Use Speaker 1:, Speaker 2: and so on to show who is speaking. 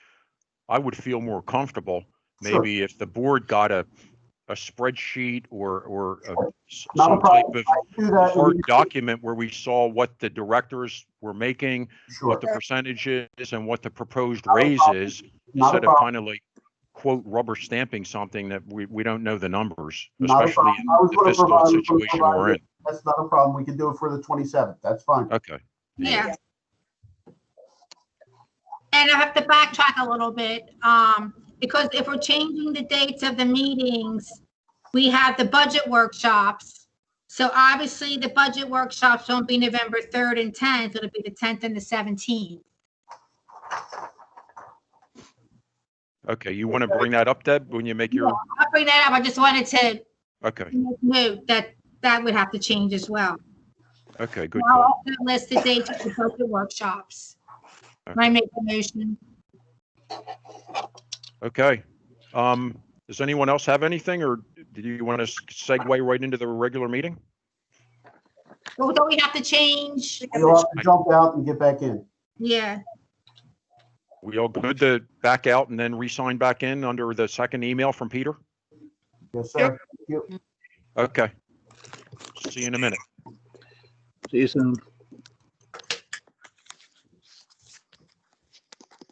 Speaker 1: I would feel more comfortable
Speaker 2: Sure.
Speaker 1: maybe if the board got a, a spreadsheet or, or a-
Speaker 2: Sure.
Speaker 1: s-
Speaker 2: Not a
Speaker 1: some type
Speaker 2: problem.
Speaker 1: of
Speaker 2: Do that.
Speaker 1: hard document where we saw what the directors were making,
Speaker 2: Sure.
Speaker 1: what the percentage is and what the proposed
Speaker 2: Not a
Speaker 1: raise
Speaker 2: problem.
Speaker 1: is,
Speaker 2: Not a
Speaker 1: instead of
Speaker 2: problem.
Speaker 1: kind of like quote rubber stamping something that we, we don't know the numbers,
Speaker 2: Not a
Speaker 1: especially in
Speaker 2: problem. I was
Speaker 1: the
Speaker 2: gonna provide-
Speaker 1: fiscal
Speaker 2: I was gonna
Speaker 1: situation
Speaker 2: provide
Speaker 1: we're in.
Speaker 2: it. That's not a problem. We can do it for the 27th. That's fine.
Speaker 1: Okay.
Speaker 3: Yeah. And I have to backtrack a little bit, um, because if we're changing the dates of the meetings, we have the budget workshops. So obviously, the budget workshops won't be November 3rd and 10th, it'll be the 10th and the 17th.
Speaker 1: Okay, you want to bring that up, Deb, when you make your,
Speaker 3: I'll bring that up, I just wanted to
Speaker 1: okay,
Speaker 3: note that that would have to change as well.
Speaker 1: okay, good
Speaker 3: Now,
Speaker 1: call.
Speaker 3: I'll list the dates of the budget workshops. Can I make the motion?
Speaker 1: Okay. Um, does anyone else have anything or do you want to segue right into the regular meeting?
Speaker 3: Well, Don't we have to change?
Speaker 2: You'll have to jump out and get back in.
Speaker 3: Yeah,
Speaker 1: We all good to back out and then re-sign back in under the second email from Peter?
Speaker 2: Yes, sir.
Speaker 1: Okay. See you in a minute.
Speaker 4: See you soon.